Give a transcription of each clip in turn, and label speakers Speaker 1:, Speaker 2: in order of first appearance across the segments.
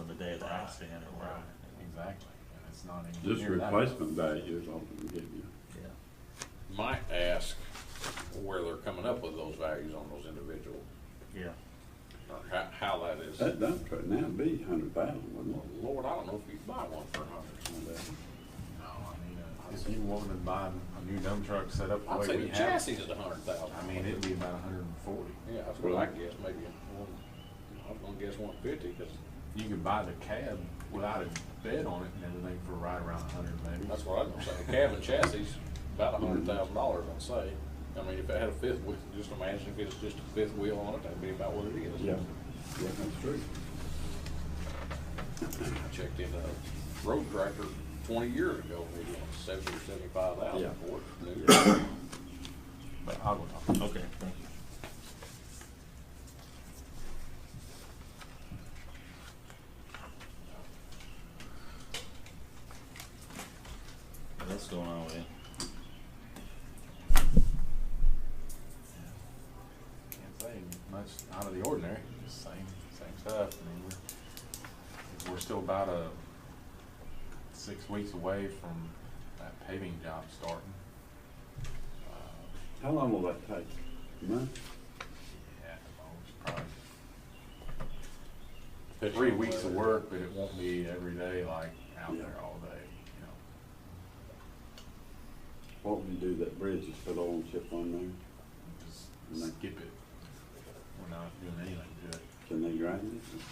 Speaker 1: not seeing it right.
Speaker 2: Exactly, and it's not even.
Speaker 3: This
Speaker 2: near that.
Speaker 3: replacement value is all we give you.
Speaker 4: Might ask where they're coming up with those values on those individuals,
Speaker 1: Yeah, yeah.
Speaker 4: or how, how that is.
Speaker 3: That dump truck now be hundred thousand, wouldn't it?
Speaker 4: Lord, I don't know if you buy one for a hundred.
Speaker 2: No, I mean, uh, if you wanted to buy a new dump truck set up
Speaker 4: I'd
Speaker 2: the
Speaker 4: say
Speaker 2: way we
Speaker 4: the
Speaker 2: have,
Speaker 4: chassis is a hundred thousand.
Speaker 2: I mean, it'd be about a hundred and forty.
Speaker 4: Yeah, that's what I guess, maybe one, I was gonna guess one fifty, cause
Speaker 2: You could buy the cab without a bed on it and everything for right around a hundred maybe.
Speaker 4: that's what I was gonna say, the cabin chassis, is about a hundred thousand dollars, I'd say. I mean, if it had a fifth wheel, just imagine if it's just a fifth wheel on it, that'd be about what it is.
Speaker 3: Yeah, that's true.
Speaker 4: I checked in a road tractor twenty years ago, maybe on seventy or seventy-five
Speaker 3: Yeah.
Speaker 4: thousand for it. new.
Speaker 2: But I would, I
Speaker 1: Okay, thank you. What else going on with it?
Speaker 2: can't say much out of the ordinary, just same, same stuff. I mean, we're, we're still about a, six weeks away from that paving job starting.
Speaker 3: How long will that take? A month?
Speaker 2: Yeah, at the most, probably three weeks of work, but it won't be every day like out there all day, you know.
Speaker 3: What would you do that bridge is put oil and chip on there?
Speaker 2: Just
Speaker 3: And they-
Speaker 2: skip it. We're not doing anything to it.
Speaker 3: Can they grind it?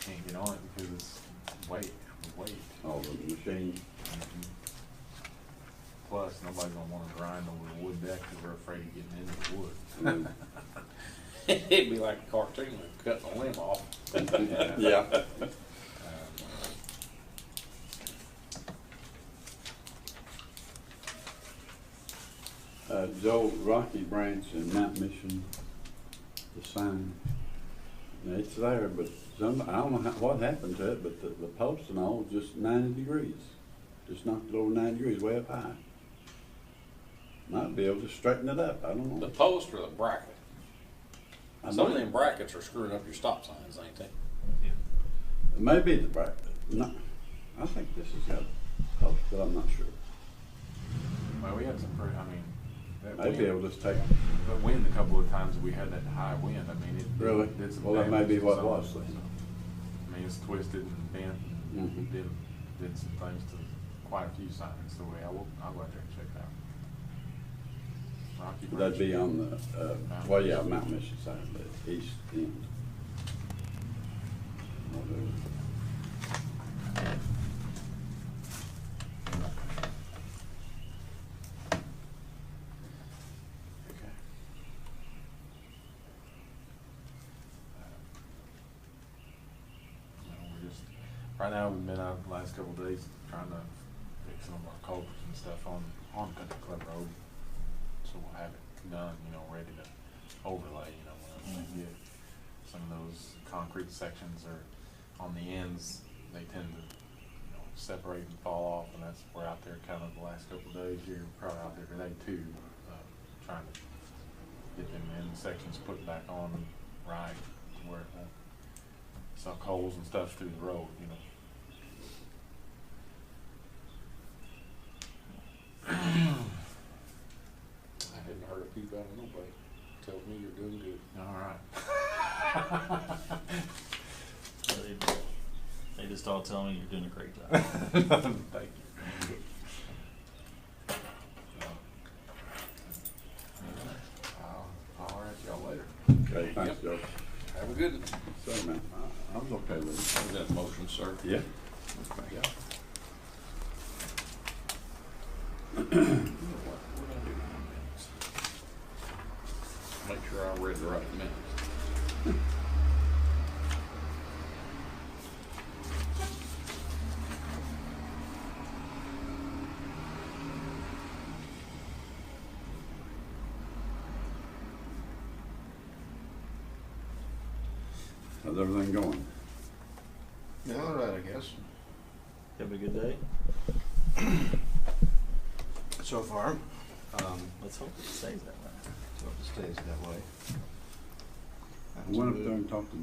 Speaker 2: Can't get on it because it's weight, weight.
Speaker 3: All the machine?
Speaker 2: Plus, nobody's gonna wanna grind over the wood deck because we're afraid of getting into the wood.
Speaker 3: I mean,
Speaker 4: It'd be like a cartoon, like cutting a limb off.
Speaker 3: Yeah.
Speaker 2: Uh,
Speaker 3: Uh, Joe, Rocky Branch and Mount Mission, the sign, Now, it's there, but some, I don't know how, what happened to it, but the, the post and all, just ninety degrees. Just knocked it over ninety degrees, way up high. Might be able to straighten it up, I don't
Speaker 4: The
Speaker 3: know.
Speaker 4: post or the bracket?
Speaker 3: I
Speaker 4: Some of
Speaker 3: might-
Speaker 4: them brackets are screwing up your stop signs, ain't they?
Speaker 3: Maybe the back, no, I think this is got post, but I'm not sure.
Speaker 2: Well, we had some pretty, I mean, that
Speaker 3: Maybe
Speaker 2: wind,
Speaker 3: it'll just take,
Speaker 2: that wind a couple of times, we had that high wind, I mean, it. did-
Speaker 3: Really?
Speaker 2: did some
Speaker 3: Well, that may
Speaker 2: damage
Speaker 3: be
Speaker 2: to
Speaker 3: what it
Speaker 2: some-
Speaker 3: was then.
Speaker 2: I mean, it's twisted and bent, and
Speaker 3: Mhm.
Speaker 2: did, did some things to quite a few signs, the way I will, I'll go out there and check that. Rocky
Speaker 3: that'd
Speaker 2: Branch.
Speaker 3: be on the, uh, well, yeah, Mount Mission side, the east end.
Speaker 2: Um, You know, we're just, right now, we've been out the last couple of days trying to fix some of our culverts and stuff on, on Country Club Road. So we'll have it done, you know, ready to overlay, you know, when we get some of those concrete sections are on the ends, they tend to, you know, separate and fall off, and that's, we're out there kind of the last couple of days here, probably out there today too, uh, trying to get them end sections put back on right to where it won't suck holes and stuff through the road, you know.
Speaker 4: I hadn't heard a peep out of nobody. Tells me you're doing good.
Speaker 2: All right.
Speaker 1: Well, they- They just all tell me you're doing a great job.
Speaker 2: Thank you. I'll, I'll at y'all later.
Speaker 3: Okay, thanks, Joe.
Speaker 4: Have a good,
Speaker 3: So, man, I, I was okay with
Speaker 4: was that motion, sir?
Speaker 3: it. Yeah?
Speaker 4: Yeah. Make sure I read the right minutes.
Speaker 3: How's everything going?
Speaker 5: Yeah, all right, I guess,
Speaker 1: Have a good day.
Speaker 5: so far. Um,
Speaker 1: Let's hope it stays that way.
Speaker 5: so it stays that way.
Speaker 3: I went up there and talked to